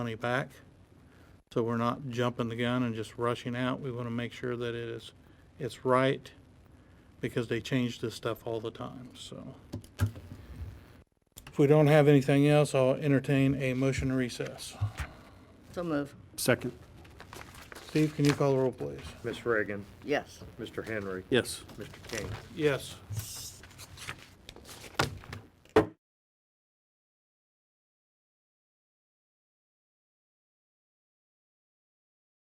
money back. So we're not jumping the gun and just rushing out. We want to make sure that it is, it's right because they change this stuff all the time, so. If we don't have anything else, I'll entertain a motion to recess. So move. Second. Steve, can you call the roll, please? Ms. Reagan, Yes. Mr. Henry, Yes. Mr. King. Yes.